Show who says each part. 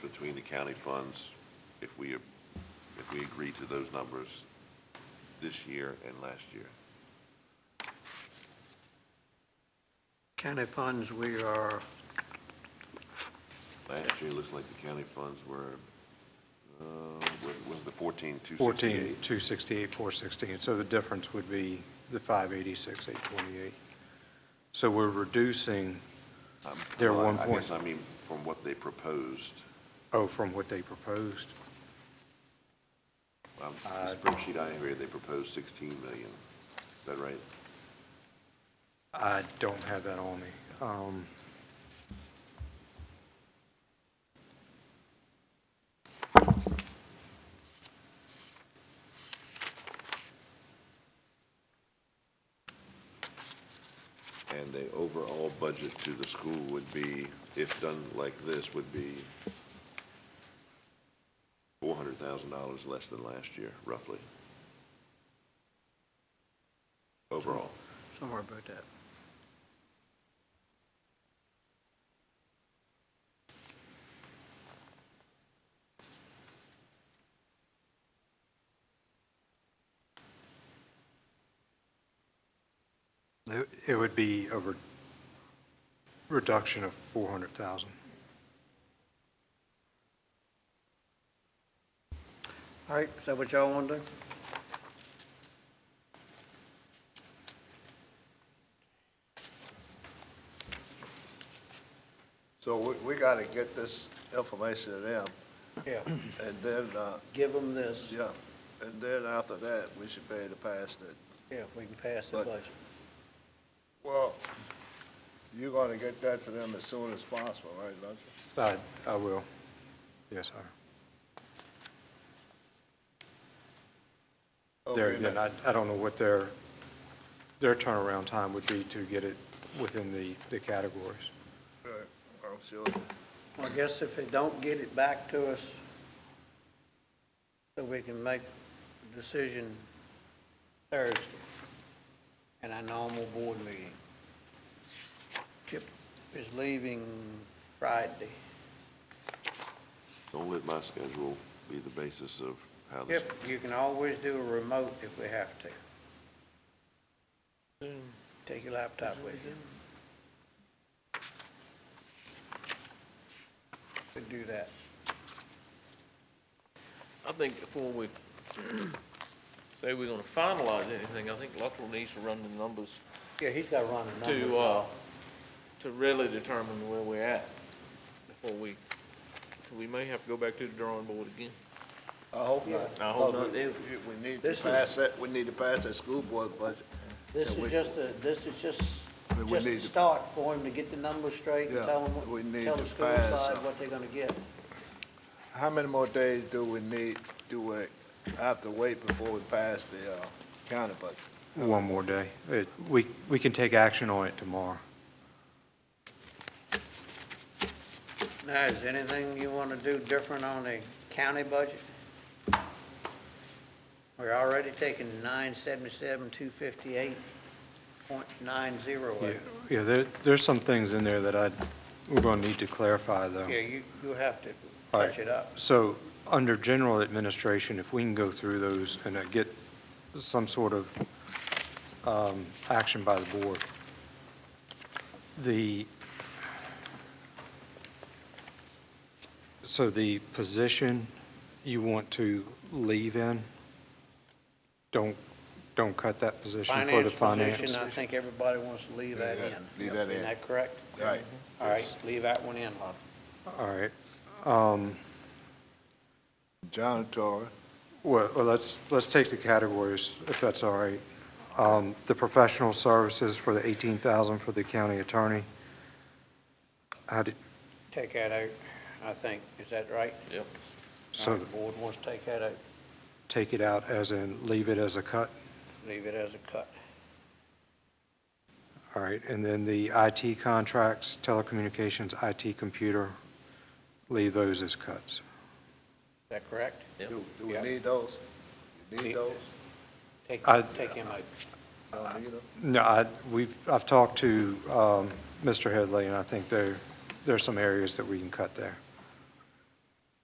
Speaker 1: between the county funds, if we, if we agree to those numbers this year and last year.
Speaker 2: County funds, we are,
Speaker 1: Last year, it looks like the county funds were, uh, what was the fourteen, two
Speaker 3: 14,
Speaker 1: sixty-eight?
Speaker 3: 268, 416, so the difference would be the 586, 828. So we're reducing, they're
Speaker 1: Well, I-
Speaker 3: one
Speaker 1: I guess
Speaker 3: point,
Speaker 1: I mean, from what they proposed,
Speaker 3: oh, from what they proposed.
Speaker 1: um,
Speaker 3: Uh,
Speaker 1: the spreadsheet I have here, they proposed sixteen million. Is that right?
Speaker 3: I don't have that on me. Um,
Speaker 1: And the overall budget to the school would be, if done like this, would be four hundred thousand dollars less than last year, roughly. Overall.
Speaker 2: somewhere about that.
Speaker 3: It it would be a re- reduction of 400,000.
Speaker 2: All right, is that what y'all want to do?
Speaker 4: So we, we gotta get this information to them,
Speaker 3: Yeah.
Speaker 4: and then, uh,
Speaker 2: Give them this,
Speaker 4: yeah, and then after that, we should be able to pass it.
Speaker 2: yeah, we can pass the
Speaker 4: But-
Speaker 2: budget.
Speaker 4: Well, you're gonna get that to them as soon as possible, right, Lutz?
Speaker 3: I I will. Yes, sir. There,
Speaker 4: Okay,
Speaker 3: again,
Speaker 4: now-
Speaker 3: I, I don't know what their, their turnaround time would be to get it within the, the categories.
Speaker 4: Right, I'm sure,
Speaker 2: I guess if they don't get it back to us, so we can make a decision Thursday in our normal board meeting. Chip is leaving Friday.
Speaker 1: Don't let my schedule be the basis of how this.
Speaker 2: Chip, you can always do a remote if we have to. Take your laptop with you. Could do that.
Speaker 5: I think before we say we're gonna finalize anything, I think Luttrell needs to run the numbers
Speaker 2: Yeah, he's got to run a number.
Speaker 5: to, uh, to really determine where we're at before we, we may have to go back to the drawing board again.
Speaker 4: I hope not.
Speaker 5: I hope
Speaker 4: But
Speaker 5: not,
Speaker 4: we-
Speaker 5: either.
Speaker 4: We we need to
Speaker 2: This is-
Speaker 4: pass that, we need to pass that school board budget.
Speaker 2: This
Speaker 4: Yeah, we-
Speaker 2: is just a, this is just,
Speaker 4: We- we
Speaker 2: just a
Speaker 4: need to-
Speaker 2: start for him to get the numbers straight and
Speaker 4: Yeah,
Speaker 2: tell him,
Speaker 4: we
Speaker 2: what-
Speaker 4: need
Speaker 2: tell
Speaker 4: to
Speaker 2: the school
Speaker 4: pass
Speaker 2: side
Speaker 4: some.
Speaker 2: what they're gonna get.
Speaker 4: How many more days do we need, do we have to wait before we pass the, uh, county budget?
Speaker 3: One more day. It, we, we can take action on it tomorrow.
Speaker 2: Now, is anything you wanna do different on the county budget? We're already taking nine seventy-seven, two fifty-eight point nine zero
Speaker 3: Yeah,
Speaker 2: eight.
Speaker 3: yeah, there, there's some things in there that I, we're going to need to clarify, though.
Speaker 2: Yeah, you, you'll have to
Speaker 3: All right.
Speaker 2: touch it up.
Speaker 3: So, under general administration, if we can go through those and uh, get some sort of um, action by the board, the, so the position you want to leave in, don't, don't cut that position for the
Speaker 2: Finance
Speaker 3: finance.
Speaker 2: position, I think everybody wants to leave that in.
Speaker 4: Leave that in.
Speaker 2: Isn't that correct?
Speaker 4: Right.
Speaker 2: All right, leave that one in, Bob. uh,
Speaker 3: All right. Um,
Speaker 4: John Torrey,
Speaker 3: Well, well, let's, let's take the categories, if that's all right. Um, The professional services for the 18,000 for the county attorney. How did,
Speaker 2: Take that out, I think, is that right?
Speaker 5: Yep.
Speaker 2: So
Speaker 3: so
Speaker 2: the board wants to take that out,
Speaker 3: take it out as in, leave it as a cut?
Speaker 2: leave it as a cut.
Speaker 3: All right, and then the IT contracts, telecommunications, IT computer, leave those as cuts.
Speaker 2: Is that correct?
Speaker 4: do, do we
Speaker 2: Yeah.
Speaker 4: need those? You Need
Speaker 2: Need-
Speaker 4: those?
Speaker 2: Take,
Speaker 3: I-
Speaker 2: take him out.
Speaker 4: Don't need them?
Speaker 3: No, I, we've, I've talked to um, Mr. Headley, and I think there, there are some areas that we can cut there.